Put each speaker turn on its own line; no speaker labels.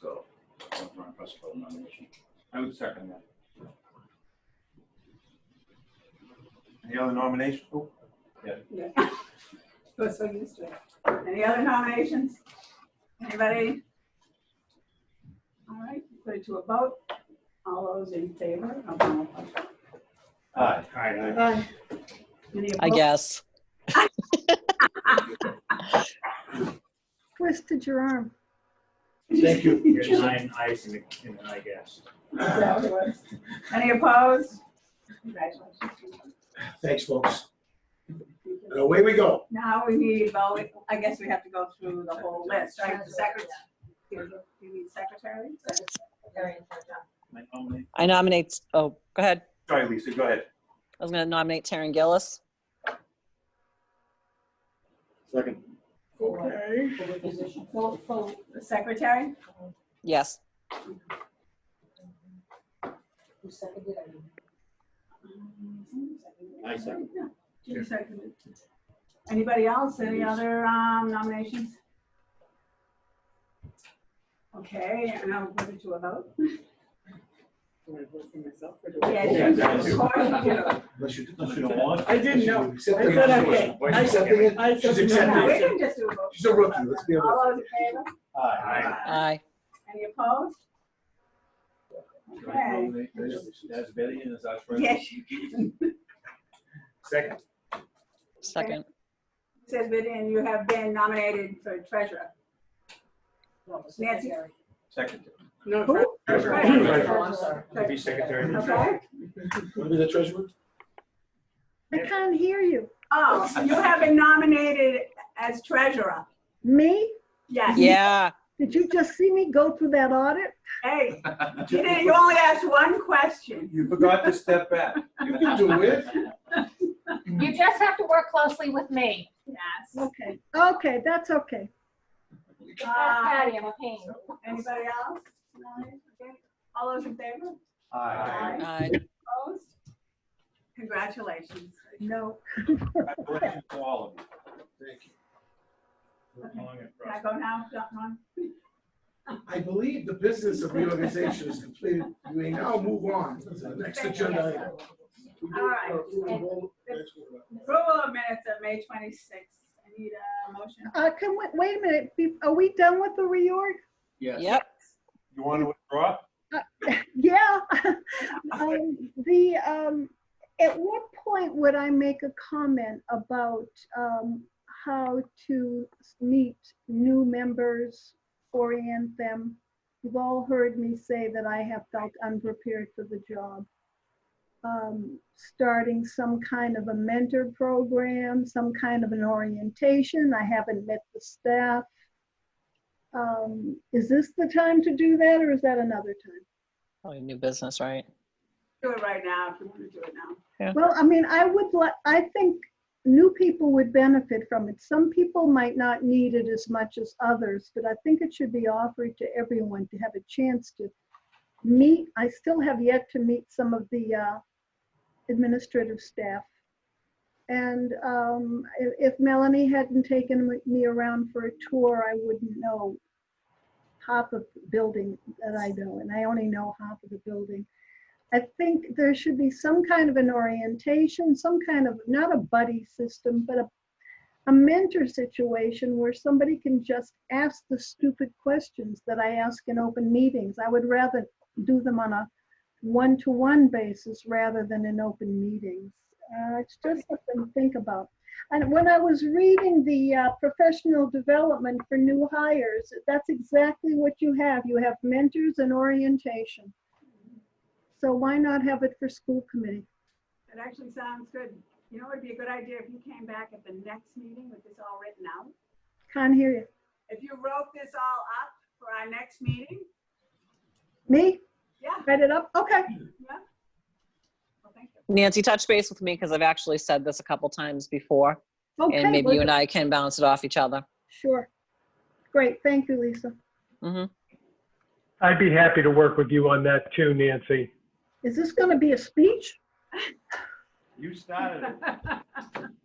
so that's my first vote nomination. I would second that.
Any other nominations? Oh,
Yeah. We're so used to it. Any other nominations? Anybody? All right, put it to a vote. All those in favor? of the motion?
Aye.
uh,
Any
I
opposed?
guess.
Twisted your arm.
Thank you. You're nine eyes in the, in the eye gas.
Is that what it was? Any opposed? Congratulations.
Thanks, folks. And away we go.
Now we need, well, we- I guess we have to go through the whole list, right? The secretary. You need secretary?
I nominate, oh, go ahead.
sorry, Lisa, go ahead.
I was going to nominate Taryn Gillis.
Second.
Okay. For the position, for, for the secretary?
Yes.
Who seconded it?
I second.
Yeah, Judy seconded. Anybody else, any other um, nominations? Okay, and I'll put it to a vote. Yeah,
Yeah,
you do.
that is-
Of course you do.
Unless you,
Unless you don't want.
I didn't know.
Accept
I
the
said,
nomination.
okay.
Why
I
you
said,
accept it?
I
She's
said.
accepting
No, we
it.
can just do a vote.
She's a rookie, let's be honest.
All those in favor?
Aye.
Aye.
Any opposed? Okay.
That's Betty and is that right?
Yes, you can.
Second.
Second.
Says Vivian, you have been nominated for treasurer.
No, the
Nancy?
secretary.
Second.
No,
Treasurer.
Oh, I'm sorry.
Be secretary.
Okay.
Want to be the treasurer?
I can't hear you.
Oh, you have been nominated as treasurer.
Me?
Yes.
Yeah.
Did you just see me go through that audit?
Hey, you didn't, you only asked one question.
You forgot to step back.
You can do it.
You just have to work closely with me.
Yes.
Okay, okay, that's okay.
That's
Uh,
Patty, I'm a pain.
Anybody else? No? Okay. All those in favor?
Aye.
Aye.
Opposed? Congratulations.
No.
Congratulations to all of you.
Thank you.
Long Can I go now, John?
I believe the business of reorganization is completed. We now move on to the next agenda item.
All right. Approval of minutes of May 26th. I need a motion.
Uh, can we, wait a minute, be- are we done with the reorg?
Yep.
You want to withdraw?
Yeah. Um, The, um, at what point would I make a comment about, um, how to meet new members, orient them? You've all heard me say that I have felt unprepared for the job. Um, starting some kind of a mentor program, some kind of an orientation. I haven't met the staff. Um, is this the time to do that or is that another time?
Probably Oh, new business, right?
Do it right now if you want to do it now.
Well, I mean, I would like, I think new people would benefit from it. Some people might not need it as much as others, but I think it should be offered to everyone to have a chance to meet. I still have yet to meet some of the uh, administrative staff. And um, i- if Melanie hadn't taken me around for a tour, I wouldn't know half of the building that I know, and I only know half of the building. I think there should be some kind of an orientation, some kind of, not a buddy system, but a, a mentor situation where somebody can just ask the stupid questions that I ask in open meetings. I would rather do them on a one-to-one basis rather than in open meetings. Uh, it's just something to think about. And when I was reading the uh, professional development for new hires, that's exactly what you have. You have mentors and orientation. So why not have it for school committee?
It actually sounds good. You know, it'd be a good idea if you came back at the next meeting with this all written out.
Can't hear you.
If you wrote this all up for our next meeting,
Me?
yeah,
Write it up? Okay.
yeah. Well, thank you.
Nancy, touch base with me because I've actually said this a couple times before.
Okay.
And maybe
well,
you and I can bounce it off each other.
Sure. Great. Thank you, Lisa.
Mhm.
I'd be happy to work with you on that too, Nancy.
Is this going to be a speech?
You started it.